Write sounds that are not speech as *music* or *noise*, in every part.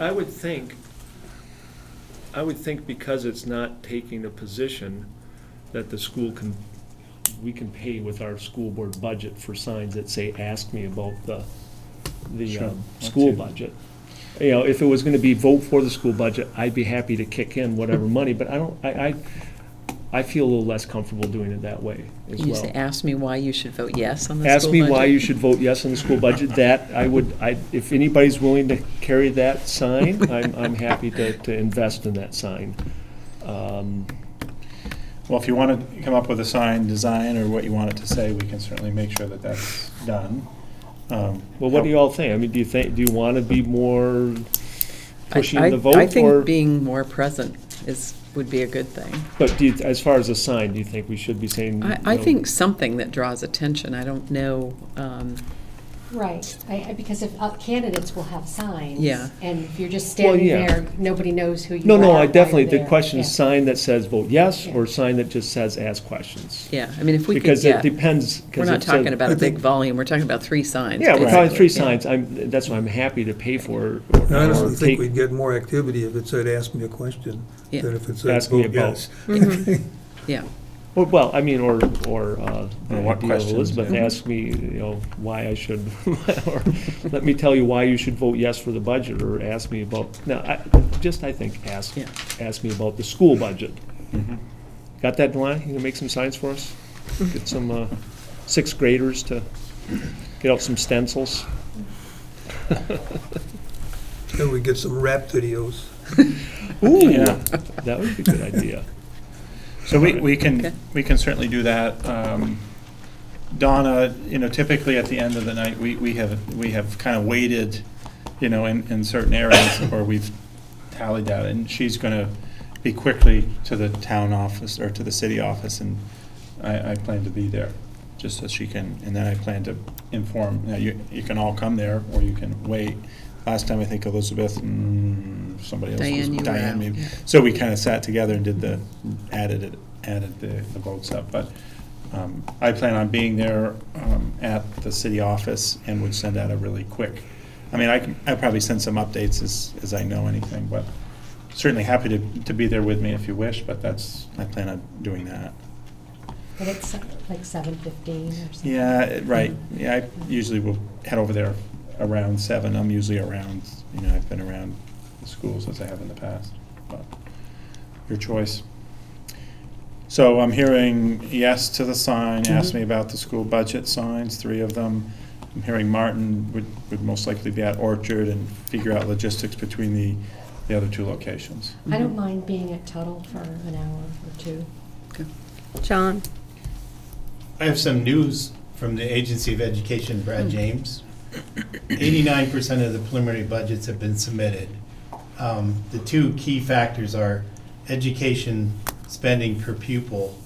I would think, I would think because it's not taking a position that the school can, we can pay with our school board budget for signs that say, ask me about the, the Sure, um, that school too. budget. You know, if it was gonna be vote for the school budget, I'd be happy to kick in whatever money, but I don't, I, I, I feel a little less comfortable doing it that way as You used to well. ask me why you should vote yes on the Ask school me why budget. you should vote yes on the school budget, that, I would, I, if anybody's willing to carry that *laughs* sign, I'm, I'm happy to, to invest in that sign. Um, Well, if you want to come up with a sign design or what you want it to say, we can certainly make sure that that's done. Um, Well, what do you all think? I mean, do you think, do you want to be more pushing I- the I- vote? I think or- being more present is, would be a good thing. But do you, as far as a sign, do you think we should be saying? I, I you know, think something that draws attention, I don't know, um, Right, I, I- because if uh, candidates will have signs. Yeah. And if you're just Well, standing yeah. there, nobody knows who you are. No, no, why I you're definitely, the there. question is Yeah. sign that says vote yes Yeah. or sign that just says ask questions. yeah, I mean, if we could Because get, it depends. 'cause we're not it says- talking about a I think- big volume, we're talking about three signs. Yeah, we're Right. talking three basically. Yeah. signs. I'm, that's why I'm happy to pay for. I honestly or think take. we'd get more activity if it said, ask me a question, Yeah. than if it said, Ask me vote about- yes. Yeah, Or- Well, I mean, or, or, uh, the Or what idea of questions, Elizabeth yeah. asked me, you know, why I should, *laughs* or let me tell you why you should vote yes for the budget, or ask me about, no, I, just, I think, ask, Yeah. ask me about the school budget. Mm-hmm. Got that, Delana? You gonna make some signs for us? Get some, uh, sixth graders to get out some stencils? Then we get some rap videos. Ooh, Yeah. that would be a good idea. So we, we Okay. can, we can certainly do that. Um, Donna, you know, typically at the end of the night, we, we have, we have kind of waited, you know, in, in certain areas *coughs* where we've tallied that, and she's gonna be quickly to the town office or to the city office, and I, I plan to be there, just so she can, and then I plan to inform, now you, you can all come there, or you can wait. Last time, I think Elizabeth and somebody else. was- Diane, you were out, Diane, maybe. yeah. So we kind of sat together and did the, added it, added the, the votes up, but um, I plan on being there um, at the city office and would send out a really quick, I mean, I can, I'll probably send some updates as, as I know anything, but certainly happy to, to be there with me if you wish, but that's, I plan on doing that. But it's like seven fifteen or something. Yeah, it- right, yeah, I usually will head over there around seven, I'm usually around, you know, I've been around the schools as I have in the past, but your choice. So I'm hearing yes to the sign, ask me about the school budget signs, three of them. I'm hearing Martin would, would most likely be at Orchard and figure out logistics between the, the other two locations. I Mm-hmm. don't mind being at Tuttle for an hour or two. John, I have some news from the Agency of Education, Brad James. Eighty-nine percent of the preliminary budgets have been submitted. Um, The two key factors are education spending per pupil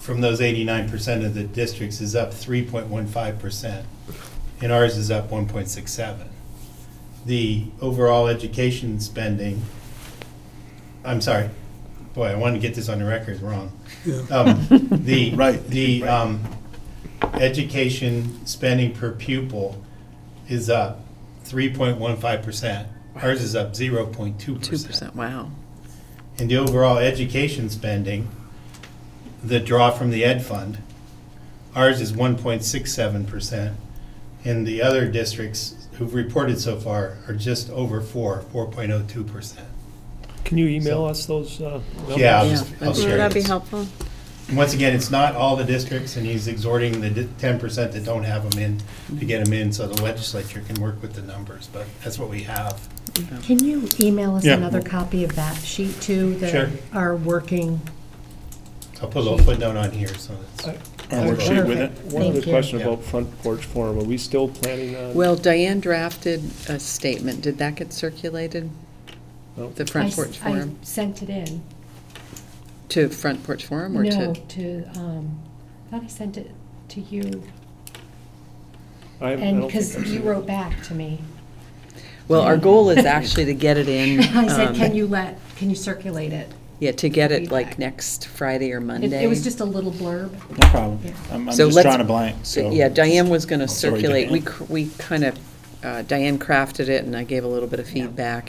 from those eighty-nine percent of the districts is up three point one five percent, and ours is up one point six seven. The overall education spending, I'm sorry, boy, I wanted to get this on the record wrong. Yeah. Um, The, *laughs* Right, the right. um, education spending per pupil is up 3.15%. Ours is up 0.2%. two percent, wow. And the overall education spending, the draw from the ed fund, ours is 1.67%. And the other districts who've reported so far are just over 4, 4.02%. Can you email us those, uh? numbers? Yeah, I'll Yeah, just, I'll that'd be share would that be this. helpful? Once again, it's not all the districts, and he's exhorting the ten percent that don't have them in to get them in, so the legislature can work with the numbers, but that's what we have. Can you email us Yeah. another copy of that sheet too? that Sure. Our working, I'll put a little footnote on here, so it's. Our worksheet with it. One other Thank you. question Yeah. about front porch forum. Are we still planning on? Well, Diane drafted a statement, did that get circulated? No. The I Front Porch s- I Forum, sent it in. to Front Porch Forum or to? No, to, um, I thought I sent it to you. I haven't- I don't And think because I've you seen it. wrote back to me. Well, our goal *laughs* is actually to get it in. *laughs* I said, um, can you let, can you circulate it? Yeah, to get it like Feedback. next Friday or It- Monday. It was just a little blurb. No problem, I'm, I'm So just let's- drawing a blank, so. Yeah, Diane was going to Oh, sorry, circulate, we, Diane. cr- we kind of, uh, Diane crafted it, and I gave a little bit of Yeah. feedback,